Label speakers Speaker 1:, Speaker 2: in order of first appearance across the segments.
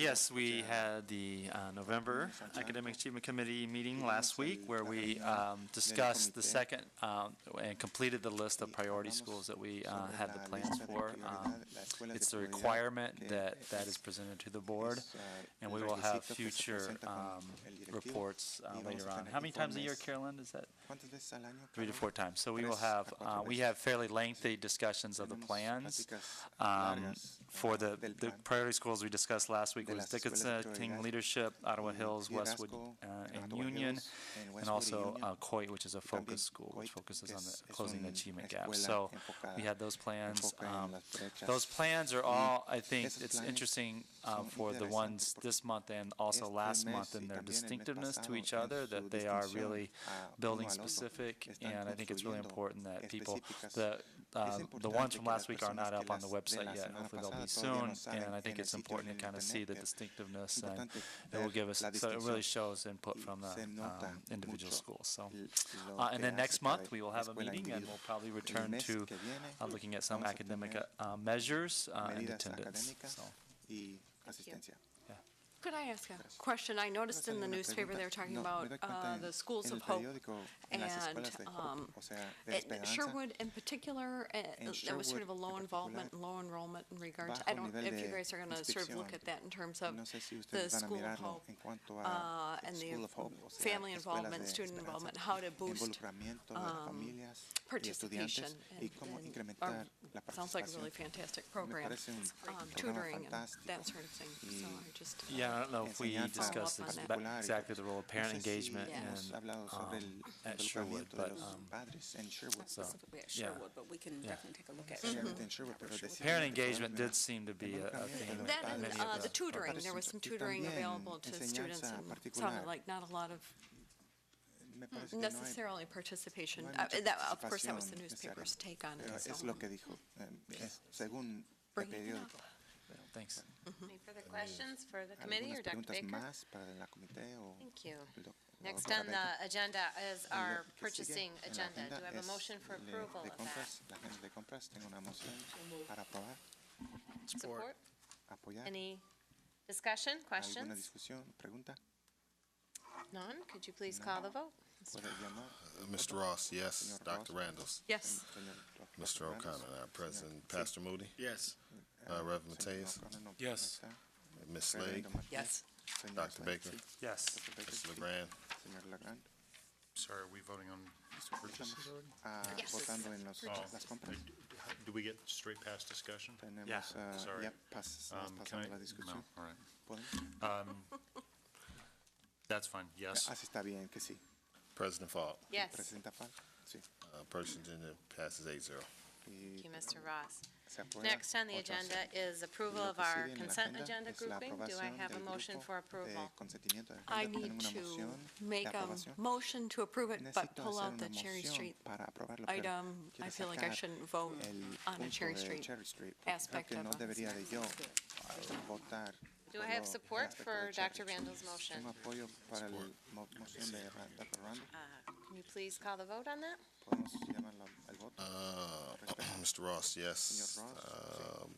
Speaker 1: Yes, we had the uh, November Academic Achievement Committee meeting last week where we um, discussed the second um, and completed the list of priority schools that we uh, had the plans for. Um, It's a requirement that that is presented to the board,
Speaker 2: uh,
Speaker 1: and we will have future um, reports uh, later on. How many times a year, Carolyn, is that? Three to four times. So we will have, uh, we have fairly lengthy discussions of the plans um, for the, the priority schools we discussed last week
Speaker 2: de
Speaker 1: was
Speaker 2: las escuelas de
Speaker 1: Dickinson, King
Speaker 2: prioridad,
Speaker 1: Leadership, Ottawa
Speaker 2: eh,
Speaker 1: Hills,
Speaker 2: Liderazgo,
Speaker 1: Westwood, uh, and
Speaker 2: Ottawa
Speaker 1: Union,
Speaker 2: Hills, and
Speaker 1: and
Speaker 2: Westwood
Speaker 1: also
Speaker 2: y
Speaker 1: uh,
Speaker 2: Union.
Speaker 1: COIT, which is a
Speaker 2: también
Speaker 1: focus school, which
Speaker 2: COIT,
Speaker 1: focuses
Speaker 2: que
Speaker 1: on
Speaker 2: es-
Speaker 1: the
Speaker 2: es
Speaker 1: closing the
Speaker 2: una
Speaker 1: achievement gap.
Speaker 2: escuela uh,
Speaker 1: So we
Speaker 2: enfocada-
Speaker 1: had those plans.
Speaker 2: enfoca en
Speaker 1: um,
Speaker 2: las brechas.
Speaker 1: Those plans
Speaker 2: Mm-hmm.
Speaker 1: are all, I think,
Speaker 2: esos
Speaker 1: it's
Speaker 2: planes
Speaker 1: interesting uh,
Speaker 2: son
Speaker 1: for the
Speaker 2: interesantes
Speaker 1: ones
Speaker 2: porque
Speaker 1: this month and also
Speaker 2: este
Speaker 1: last
Speaker 2: mes
Speaker 1: month in
Speaker 2: y también
Speaker 1: their
Speaker 2: el mes
Speaker 1: distinctiveness to
Speaker 2: pasado
Speaker 1: each
Speaker 2: en
Speaker 1: other,
Speaker 2: su
Speaker 1: that they are
Speaker 2: distinción
Speaker 1: really
Speaker 2: a uno
Speaker 1: building
Speaker 2: al otro.
Speaker 1: specific.
Speaker 2: Están
Speaker 1: And I think it's really important
Speaker 2: construyendo
Speaker 1: that people,
Speaker 2: específicas.
Speaker 1: the,
Speaker 2: Es
Speaker 1: uh, the ones
Speaker 2: importante
Speaker 1: from last
Speaker 2: que las
Speaker 1: week are not
Speaker 2: personas que
Speaker 1: up on the
Speaker 2: las de la
Speaker 1: website yet.
Speaker 2: semana
Speaker 1: Hopefully they'll be
Speaker 2: pasada todavía
Speaker 1: soon.
Speaker 2: no
Speaker 1: And
Speaker 2: saben
Speaker 1: I think
Speaker 2: en el
Speaker 1: it's
Speaker 2: sitio
Speaker 1: important
Speaker 2: en
Speaker 1: to kind of see the
Speaker 2: internet.
Speaker 1: distinctiveness and
Speaker 2: Importante
Speaker 1: it will
Speaker 2: ver
Speaker 1: give us,
Speaker 2: la
Speaker 1: so it really
Speaker 2: distinción.
Speaker 1: shows input from the
Speaker 2: Se nota
Speaker 1: um, individual
Speaker 2: mucho
Speaker 1: schools, so.
Speaker 2: l- lo
Speaker 1: Uh, And
Speaker 2: que
Speaker 1: then
Speaker 2: hace
Speaker 1: next
Speaker 2: cada
Speaker 1: month, we will have a
Speaker 2: escuela
Speaker 1: meeting and
Speaker 2: individual.
Speaker 1: we'll probably
Speaker 2: El
Speaker 1: return
Speaker 2: mes
Speaker 1: to
Speaker 2: que viene
Speaker 1: uh, looking at some
Speaker 2: vamos a
Speaker 1: academic
Speaker 2: tener
Speaker 1: uh, measures uh, and
Speaker 2: medidas
Speaker 1: attendance,
Speaker 2: académicas
Speaker 1: so.
Speaker 2: y asistencia.
Speaker 3: Could I ask a
Speaker 2: Gracias.
Speaker 3: question? I noticed in the
Speaker 2: Una
Speaker 3: newspaper
Speaker 2: pregunta.
Speaker 3: they were talking
Speaker 2: No, me
Speaker 3: about
Speaker 2: doy cuenta
Speaker 3: uh,
Speaker 2: en-
Speaker 3: the schools
Speaker 2: en
Speaker 3: of
Speaker 2: el
Speaker 3: hope.
Speaker 2: periódico, en las
Speaker 3: And
Speaker 2: escuelas de Hope,
Speaker 3: um,
Speaker 2: o sea, de
Speaker 3: it-
Speaker 2: esperanza.
Speaker 3: Sherwood in particular, uh,
Speaker 2: En
Speaker 3: there was sort of a
Speaker 2: Sherwood en
Speaker 3: low involvement,
Speaker 2: particular,
Speaker 3: low enrollment in regard
Speaker 2: bajo
Speaker 3: to, I don't,
Speaker 2: nivel
Speaker 3: if you
Speaker 2: de
Speaker 3: guys are going to sort of look
Speaker 2: inscripción.
Speaker 3: at that in terms of
Speaker 2: No sé si
Speaker 3: the
Speaker 2: ustedes van a
Speaker 3: school of
Speaker 2: mirarlo
Speaker 3: hope
Speaker 2: en cuanto
Speaker 3: uh,
Speaker 2: a
Speaker 3: and
Speaker 2: School
Speaker 3: the
Speaker 2: of Hope, o sea,
Speaker 3: family
Speaker 2: escuelas
Speaker 3: involvement,
Speaker 2: de
Speaker 3: student
Speaker 2: esperanza,
Speaker 3: involvement, how to boost
Speaker 2: involucramiento de las
Speaker 3: um,
Speaker 2: familias y
Speaker 3: participation.
Speaker 2: estudiantes y
Speaker 3: and-
Speaker 2: cómo
Speaker 3: and-
Speaker 2: incrementar la
Speaker 3: or- Sounds like a really
Speaker 2: participación.
Speaker 3: fantastic program,
Speaker 2: parece un
Speaker 3: um,
Speaker 2: programa
Speaker 3: tutoring and
Speaker 2: fantástico.
Speaker 3: that sort of thing. So
Speaker 2: Y-
Speaker 3: I just. uh,
Speaker 1: Yeah, I don't know if we
Speaker 2: enseñanza
Speaker 1: discussed
Speaker 3: Follow
Speaker 1: this-
Speaker 3: up on that.
Speaker 1: but
Speaker 2: particular y-
Speaker 1: exactly the role of
Speaker 2: no
Speaker 1: parent
Speaker 2: sé si
Speaker 1: engagement
Speaker 2: hemos
Speaker 1: and,
Speaker 2: hablado sobre
Speaker 1: um,
Speaker 2: el
Speaker 1: at Sherwood,
Speaker 2: involucramiento de
Speaker 1: but
Speaker 2: los
Speaker 1: um,
Speaker 2: padres en Sherwood.
Speaker 1: so,
Speaker 4: specifically at
Speaker 1: yeah.
Speaker 4: Sherwood, but we can definitely take a look at.
Speaker 2: Especialmente
Speaker 4: Sherwood.
Speaker 2: en Sherwood, pero
Speaker 4: Sherwood.
Speaker 2: decir-
Speaker 1: Parent engagement did seem to be a a theme.
Speaker 2: Involucramiento de
Speaker 1: at
Speaker 2: los
Speaker 3: That and
Speaker 1: many of
Speaker 2: padres.
Speaker 3: uh,
Speaker 1: the-
Speaker 3: the tutoring, there was some
Speaker 2: Y
Speaker 3: tutoring
Speaker 2: también
Speaker 3: available to students,
Speaker 2: enseñanza
Speaker 3: and
Speaker 2: particular.
Speaker 3: sounded like not a lot of
Speaker 2: Me parece que no hay-
Speaker 3: necessarily participation.
Speaker 2: no hay
Speaker 3: Uh,
Speaker 2: mucha
Speaker 3: that- Of course, that was the
Speaker 2: participación
Speaker 3: newspaper's
Speaker 2: necesaria.
Speaker 3: take on
Speaker 2: Pero
Speaker 3: it,
Speaker 2: es
Speaker 3: so
Speaker 2: lo que dijo, eh, es según el
Speaker 3: bringing it up.
Speaker 2: periódico.
Speaker 1: Thanks.
Speaker 5: Any further questions for the committee
Speaker 2: Eh, ¿Algunas
Speaker 5: or Dr.
Speaker 2: preguntas
Speaker 5: Baker?
Speaker 2: más para la comité o?
Speaker 5: Thank you.
Speaker 2: el doc- o
Speaker 5: Next
Speaker 2: doctora
Speaker 5: on
Speaker 2: Baker?
Speaker 5: the agenda is
Speaker 2: Y lo
Speaker 5: our
Speaker 2: que sigue
Speaker 5: purchasing
Speaker 2: en la
Speaker 5: agenda.
Speaker 2: agenda
Speaker 5: Do I have a
Speaker 2: es
Speaker 5: motion for
Speaker 2: le-
Speaker 5: approval
Speaker 2: de
Speaker 5: of that?
Speaker 2: compras, La agenda de compras, tengo una moción para aprobar,
Speaker 5: Support?
Speaker 2: apoyar.
Speaker 5: Any discussion,
Speaker 2: ¿Alguna
Speaker 5: questions?
Speaker 2: discusión, pregunta?
Speaker 5: None? Could you please call the vote?
Speaker 2: ¿Puede llamar?
Speaker 6: Mr. Ross, yes.
Speaker 2: Señor Ross.
Speaker 6: Dr. Randalls.
Speaker 3: Yes.
Speaker 2: Señor doctor
Speaker 6: Mr.
Speaker 2: Fernández.
Speaker 6: O'Connor, our
Speaker 2: Sí.
Speaker 6: president. Pastor Moody,
Speaker 7: Yes.
Speaker 6: uh, Reverend
Speaker 2: Señor
Speaker 6: Mateus,
Speaker 2: O'Connor no- no
Speaker 7: Yes.
Speaker 2: está.
Speaker 6: Ms. Slade,
Speaker 2: Reverendo Martínez.
Speaker 4: Yes.
Speaker 2: Señor
Speaker 6: Dr.
Speaker 2: Slade,
Speaker 6: Baker,
Speaker 2: sí.
Speaker 1: Yes.
Speaker 2: Dr. Baker,
Speaker 6: Ms.
Speaker 2: sí.
Speaker 6: LeGrand.
Speaker 2: Señor Legrand.
Speaker 7: Sorry, are we voting on purchases already?
Speaker 2: Ah,
Speaker 5: Yes.
Speaker 2: votando en los-
Speaker 7: Oh.
Speaker 2: las compras.
Speaker 7: Uh, d- how- Do we get straight past discussion?
Speaker 2: Tenemos, ah,
Speaker 7: Sorry.
Speaker 2: ya pas- nos
Speaker 7: Um, can
Speaker 2: pasamos
Speaker 7: I-
Speaker 2: la discusión.
Speaker 7: No, all right. Um,
Speaker 2: ¿Pueden?
Speaker 7: That's fine, yes.
Speaker 2: Así está bien, que Ah, sí.
Speaker 6: President Faulk,
Speaker 5: Yes.
Speaker 2: Presidenta Pal, sí.
Speaker 6: uh, purchasing agenda passes eight zero.
Speaker 2: Y
Speaker 5: Thank you, Mr. Ross.
Speaker 2: se aprueba
Speaker 5: Next on the
Speaker 2: ocho a
Speaker 5: agenda
Speaker 2: cero.
Speaker 5: is approval
Speaker 2: Y lo
Speaker 5: of
Speaker 2: que sigue
Speaker 5: our
Speaker 2: en la
Speaker 5: consent
Speaker 2: agenda
Speaker 5: agenda
Speaker 2: es la
Speaker 5: grouping. Do I
Speaker 2: aprobación
Speaker 5: have a
Speaker 2: del
Speaker 5: motion
Speaker 2: grupo
Speaker 5: for
Speaker 2: de
Speaker 5: approval?
Speaker 2: consentimiento de
Speaker 3: I
Speaker 2: agenda.
Speaker 3: need
Speaker 2: Tengo una
Speaker 3: to
Speaker 2: moción de
Speaker 3: make a
Speaker 2: aprobación.
Speaker 3: motion to approve it, but
Speaker 2: Necesito
Speaker 3: pull
Speaker 2: hacer
Speaker 3: out
Speaker 2: una
Speaker 3: the Cherry
Speaker 2: moción
Speaker 3: Street
Speaker 2: para aprobarlo, pero
Speaker 3: item.
Speaker 2: quiero
Speaker 3: I feel like I
Speaker 2: sacar
Speaker 3: shouldn't vote
Speaker 2: el
Speaker 3: on a
Speaker 2: punto
Speaker 3: Cherry
Speaker 2: de
Speaker 3: Street.
Speaker 2: Cherry Street, porque creo
Speaker 3: aspect
Speaker 2: que
Speaker 3: of
Speaker 2: no
Speaker 3: us.
Speaker 2: debería de yo eh, votar.
Speaker 5: Do
Speaker 2: por
Speaker 5: I
Speaker 2: lo-
Speaker 5: have
Speaker 2: el
Speaker 5: support
Speaker 2: aspecto de
Speaker 5: for
Speaker 2: Cherry
Speaker 5: Dr.
Speaker 2: Street.
Speaker 5: Randall's
Speaker 2: Tengo
Speaker 5: motion?
Speaker 2: apoyo para la moción de Ra- Dr. Randall.
Speaker 5: Uh, Can you please call the vote on that?
Speaker 2: Podemos llamarlo al voto.
Speaker 6: Uh,
Speaker 2: Respecto.
Speaker 6: Mr. Ross, yes.
Speaker 2: Señor Ross, sí.
Speaker 6: Um,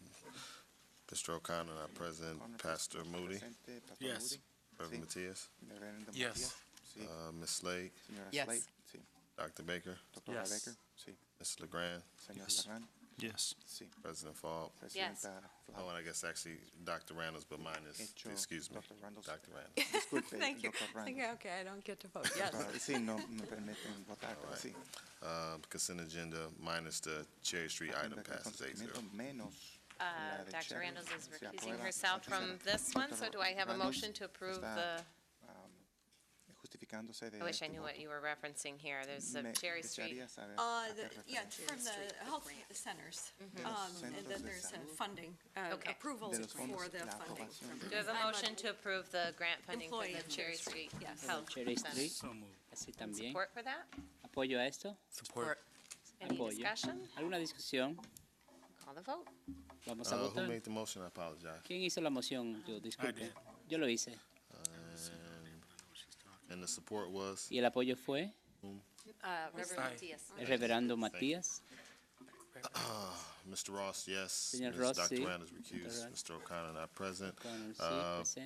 Speaker 6: Mr. O'Connor, our
Speaker 2: O'Connor,
Speaker 6: president. Pastor Moody,
Speaker 2: Presente, Pastor
Speaker 7: Yes.
Speaker 2: Moody.
Speaker 6: Reverend
Speaker 2: Sí.
Speaker 6: Mateus,
Speaker 2: Reverendo
Speaker 7: Yes.
Speaker 2: Matías. Sí.
Speaker 6: uh, Ms. Slade,
Speaker 2: Señora
Speaker 4: Yes.
Speaker 2: Slade. Sí.
Speaker 6: Dr. Baker,
Speaker 2: Doctora
Speaker 1: Yes.
Speaker 2: Baker. Sí.
Speaker 6: Ms. LeGrand,
Speaker 2: Señor
Speaker 7: Yes.
Speaker 2: Legrand.
Speaker 7: Yes.
Speaker 2: Sí.
Speaker 6: President Faulk.
Speaker 2: Presidenta
Speaker 6: Oh,
Speaker 2: Flau.
Speaker 6: and I guess actually Dr. Randalls, but mine is,
Speaker 2: Hecho,
Speaker 6: excuse me,
Speaker 2: Dr. Randalls.
Speaker 6: Dr. Randalls.
Speaker 2: Disculpe,
Speaker 3: Thank you.
Speaker 2: doctor
Speaker 3: I think,
Speaker 2: Randall.
Speaker 3: okay, I don't get to vote, yes.
Speaker 2: Ah, Sí, no me permiten votar, pero sí.
Speaker 6: Um, Consent agenda minus the Cherry Street
Speaker 2: Agenda
Speaker 6: item
Speaker 2: de
Speaker 6: passes eight zero.
Speaker 2: consentimiento menos la
Speaker 5: Uh,
Speaker 2: de
Speaker 5: Dr.
Speaker 2: Cherry.
Speaker 5: Randalls is
Speaker 2: Se
Speaker 5: recusing
Speaker 2: aprueba
Speaker 5: herself
Speaker 2: ocho a
Speaker 5: from
Speaker 2: cero.
Speaker 5: this one, so
Speaker 2: Doctor
Speaker 5: do I have a
Speaker 2: Randalls
Speaker 5: motion to approve
Speaker 2: está,
Speaker 5: the,
Speaker 2: um, Justificándose de.
Speaker 5: I wish I
Speaker 2: este
Speaker 5: knew
Speaker 2: voto.
Speaker 5: what you were referencing here. There's a
Speaker 2: Me
Speaker 5: Cherry Street.
Speaker 2: gustaría saber
Speaker 3: Uh,
Speaker 2: a qué
Speaker 3: the- yeah,
Speaker 2: referencia.
Speaker 3: from the health centers,
Speaker 2: De los
Speaker 3: um, and
Speaker 2: centros
Speaker 3: then
Speaker 2: de
Speaker 3: there's a
Speaker 2: salud.
Speaker 3: funding, uh,
Speaker 5: Okay.
Speaker 3: approval
Speaker 2: De los
Speaker 3: for
Speaker 2: fondos,
Speaker 3: the
Speaker 2: la
Speaker 3: funding.
Speaker 2: aprobación.
Speaker 5: Do I have a
Speaker 3: I'm a
Speaker 5: motion to approve the grant funding for
Speaker 3: employee
Speaker 5: the
Speaker 3: of Cherry
Speaker 5: Cherry
Speaker 3: Street,
Speaker 5: Street
Speaker 3: yes.
Speaker 5: Health
Speaker 8: Cherry
Speaker 5: Center?
Speaker 8: Street. Así también.
Speaker 5: Support for that?
Speaker 8: Apoyo a esto.
Speaker 1: Support.
Speaker 5: Any
Speaker 8: Apoyo.
Speaker 5: discussion?
Speaker 8: ¿Alguna discusión?
Speaker 5: Call the vote.
Speaker 8: Vamos a
Speaker 6: Uh, who
Speaker 8: votar.
Speaker 6: made the motion? I apologize.
Speaker 8: ¿Quién hizo la moción? Yo, disculpe. Yo lo hice.
Speaker 6: And the support was?
Speaker 8: Y el apoyo fue
Speaker 5: Uh, Reverend Diaz.
Speaker 8: el reverendo Matías.
Speaker 6: Mr. Ross, yes.
Speaker 8: Señor
Speaker 6: Ms.
Speaker 8: Ross,
Speaker 6: Dr.
Speaker 8: sí.
Speaker 6: Rand is recused.
Speaker 8: Rand.
Speaker 6: Mr. O'Connor not present.
Speaker 8: O'Connor, sí,
Speaker 6: Uh,
Speaker 8: presente.